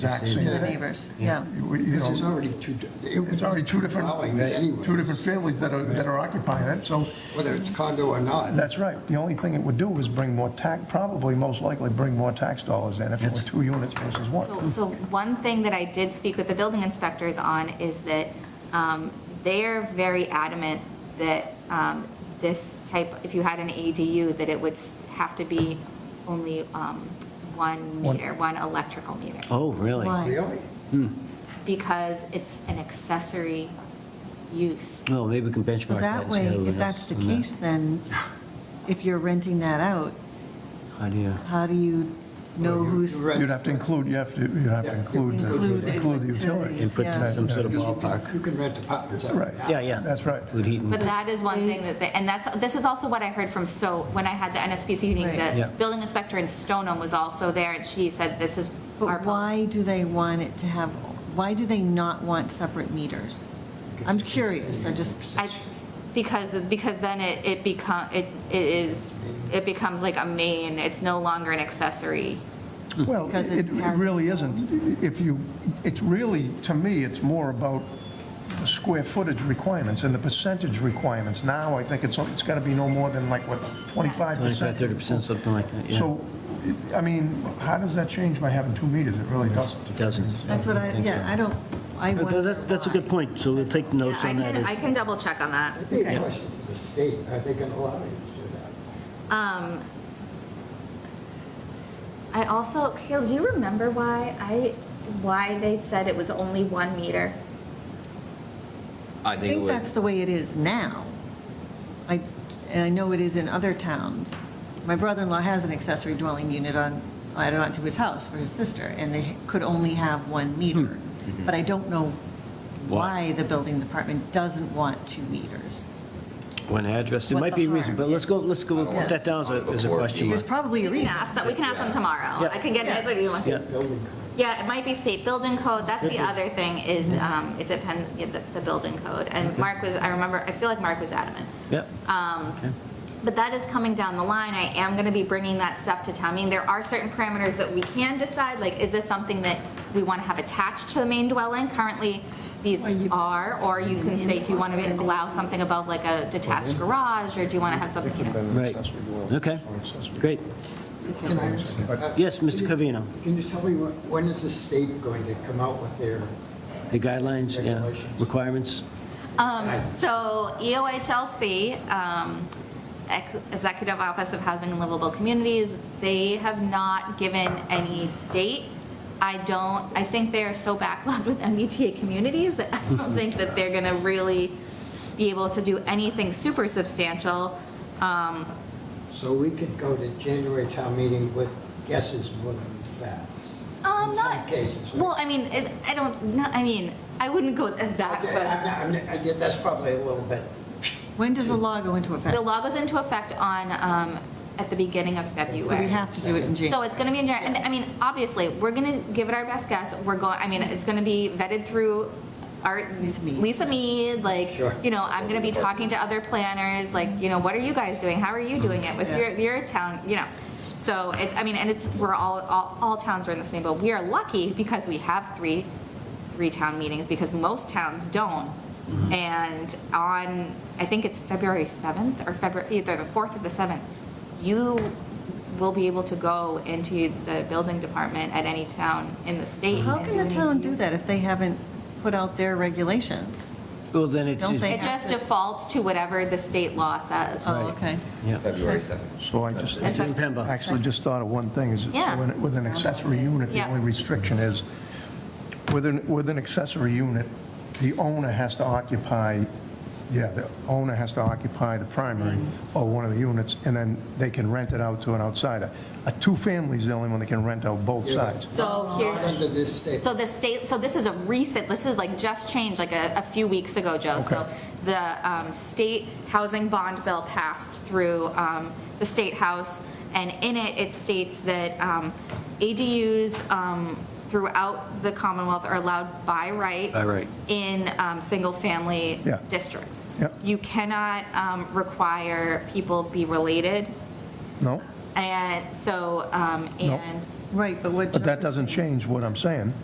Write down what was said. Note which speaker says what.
Speaker 1: exact
Speaker 2: to the
Speaker 1: same.
Speaker 2: neighbors, yeah.
Speaker 1: We- you
Speaker 3: This is
Speaker 1: know,
Speaker 3: already two,
Speaker 1: It's
Speaker 3: it's
Speaker 1: already two different,
Speaker 3: Anyway,
Speaker 1: two different families that are, that are occupying it, so
Speaker 3: whether it's condo or not,
Speaker 1: that's right. The only thing it would do is bring more tax, probably most likely bring more tax dollars in if it were two units versus one.
Speaker 4: So- So one thing that I did speak with the building inspectors on is that um, they're very adamant that um, this type, if you had an ADU, that it would s- have to be only um, one meter, one electrical meter,
Speaker 2: Oh, really?
Speaker 5: Why?
Speaker 3: really?
Speaker 4: because it's an accessory use.
Speaker 2: Well, maybe we can benchmark
Speaker 5: So
Speaker 2: that
Speaker 5: that
Speaker 2: and see
Speaker 5: way,
Speaker 2: how
Speaker 5: if
Speaker 2: it
Speaker 5: that's
Speaker 2: is
Speaker 5: the
Speaker 2: on that
Speaker 5: case, then if you're renting that out,
Speaker 2: Idea.
Speaker 5: how do you know who's,
Speaker 3: You're right.
Speaker 1: You'd have to include, you have to, you'd have to
Speaker 3: Yeah.
Speaker 1: include,
Speaker 3: Include
Speaker 1: the-
Speaker 3: it.
Speaker 1: include the utility.
Speaker 2: And put
Speaker 5: Yeah.
Speaker 2: some sort of
Speaker 3: Because you
Speaker 2: ballpark.
Speaker 3: can- You can rent apartments out.
Speaker 1: Right.
Speaker 2: Yeah, yeah.
Speaker 1: That's right.
Speaker 2: With heat and-
Speaker 4: But that is one thing that, they- and that's, this is also what I heard from, so when I had the NSPC meeting,
Speaker 5: Right.
Speaker 2: Yeah.
Speaker 4: the building inspector in Stoneham was also there, and she said, this is our
Speaker 5: but
Speaker 4: policy.
Speaker 5: why do they want it to have, why do they not want separate meters? I'm curious, I just,
Speaker 4: I, because, because then it, it become, it, it is, it becomes like a main, it's no longer an accessory.
Speaker 1: Well,
Speaker 5: Because
Speaker 1: it
Speaker 5: it
Speaker 1: it
Speaker 5: has-
Speaker 1: really isn't. If you, it's really, to me, it's more about the square footage requirements and the percentage requirements. Now, I think it's, it's got to be no more than like, what,
Speaker 2: 25,
Speaker 1: 25%?
Speaker 2: 30%, something like that, yeah.
Speaker 1: So, I mean, how does that change by having two meters? It really doesn't.
Speaker 2: It doesn't.
Speaker 5: that's what I,
Speaker 2: think so.
Speaker 5: yeah, I don't, I
Speaker 6: Uh,
Speaker 5: wonder
Speaker 6: That's, that's a good
Speaker 5: why.
Speaker 6: point, so we'll take notes
Speaker 4: I
Speaker 6: on that.
Speaker 4: can, I
Speaker 6: as-
Speaker 4: can double check on that.
Speaker 3: Big question for the state, are they going to allow you to do that?
Speaker 4: I also, Caleb, do you remember why I, why they said it was only one meter?
Speaker 7: I
Speaker 5: I
Speaker 7: think it
Speaker 5: think that's
Speaker 7: would,
Speaker 5: the way it is now. I, and I know it is in other towns. My brother-in-law has an accessory dwelling unit on, added onto his house for his sister, and they could only have one meter. But I don't know why the building department doesn't want two meters.
Speaker 6: One address, there
Speaker 5: What
Speaker 6: might
Speaker 5: the
Speaker 6: be a reason, but
Speaker 5: harm
Speaker 6: let's go,
Speaker 5: is.
Speaker 6: let's go, put that down as a, as a
Speaker 7: Before
Speaker 6: question
Speaker 7: you-
Speaker 5: There's
Speaker 6: mark.
Speaker 5: probably
Speaker 4: We
Speaker 5: a
Speaker 4: can
Speaker 5: reason.
Speaker 4: ask that, we can ask them tomorrow. I can get an answer to you.
Speaker 3: State building code.
Speaker 4: Yeah, it might be state building code, that's the other thing, is, um, it depends, yeah, the, the building code. And Mark was, I remember, I feel like Mark was adamant.
Speaker 2: Yep.
Speaker 5: Um,
Speaker 4: But that is coming down the line. I am going to be bringing that stuff to town meeting. There are certain parameters that we can decide, like, is this something that we want to have attached to the main dwelling? Currently, these are, or you can say, do you want to allow something above like a detached garage, or do you want to have something? you know?
Speaker 2: Right. Okay, great.
Speaker 3: Can I ask, uh,
Speaker 6: Yes, Mr.
Speaker 3: can you-
Speaker 6: Covino,
Speaker 3: Can you tell me, when when is the state going to come out with their?
Speaker 2: the guidelines, yeah,
Speaker 3: Regulations.
Speaker 2: requirements,
Speaker 4: Um, So E EOHLC, um, Ex- Executive Office of Housing and Livable Communities, they have not given any date. I don't, I think they are so backlogged with MBTA communities that I don't think that they're going to really be able to do anything super substantial.
Speaker 3: So we could go to January town meeting with guesses more than facts.
Speaker 4: Um,
Speaker 3: In some
Speaker 4: not-
Speaker 3: cases, right?
Speaker 4: Well, I mean, it- I don't, not- I mean, I wouldn't go that
Speaker 3: Okay,
Speaker 4: far.
Speaker 3: I'm not- I'm not- I get- That's probably a little bit,
Speaker 5: When does the law go into effect?
Speaker 4: The law goes into effect on, um, at the beginning of February.
Speaker 5: So we have to do it in January.
Speaker 4: So it's going to be in January. And I mean, obviously, we're going to give it our best guess. We're going, I mean, it's going to be vetted through our,
Speaker 5: Lisa Mead.
Speaker 4: Lisa Mead, like,
Speaker 3: Sure.
Speaker 4: you know, I'm going to be talking to other planners, like, you know, what are you guys doing? How are you doing it with your, your town, you know? So it's, I mean, and it's, we're all, all, all towns are in the same boat. We are lucky because we have three, three town meetings because most towns don't.
Speaker 5: Mm-hmm.
Speaker 4: And on, I think it's February 7th or February, either the 4th or the 7th, you will be able to go into the building department at any town in the state.
Speaker 5: How
Speaker 4: and
Speaker 5: can
Speaker 4: do
Speaker 5: the
Speaker 4: an
Speaker 5: town
Speaker 4: ADU.
Speaker 5: do that if they haven't put out their regulations?
Speaker 2: well, then it
Speaker 5: Don't
Speaker 2: is-
Speaker 5: they-
Speaker 4: It just defaults to whatever the state law says.
Speaker 5: Oh, okay.
Speaker 2: Yeah,
Speaker 7: February 7th.
Speaker 1: So I just,
Speaker 4: That's
Speaker 6: Jim Pemba.
Speaker 1: actually just thought of one thing, is
Speaker 4: Yeah.
Speaker 1: when it- with an accessory unit, the
Speaker 4: Yeah.
Speaker 1: only restriction is, with an, with an accessory unit, the owner has to occupy, yeah, the owner has to occupy the primary or one of the units, and then they can rent it out to an outsider. A two-family's the only one that can rent out both sides.
Speaker 4: So here's,
Speaker 3: under this state.
Speaker 4: So the state, so this is a recent, this is like just changed like a, a few weeks ago, Joe. So
Speaker 1: Okay.
Speaker 4: the um, state housing bond bill passed through um, the state house, and in it, it states that um, ADUs um, throughout the Commonwealth are allowed by right.
Speaker 2: By right.
Speaker 4: In um, single-family
Speaker 1: Yeah.
Speaker 4: districts.
Speaker 1: Yep.
Speaker 4: You cannot um, require people be related,
Speaker 1: No?
Speaker 4: and so, um, and.
Speaker 5: Right, but what.
Speaker 1: But that
Speaker 5: Joe-
Speaker 1: doesn't change what I'm saying.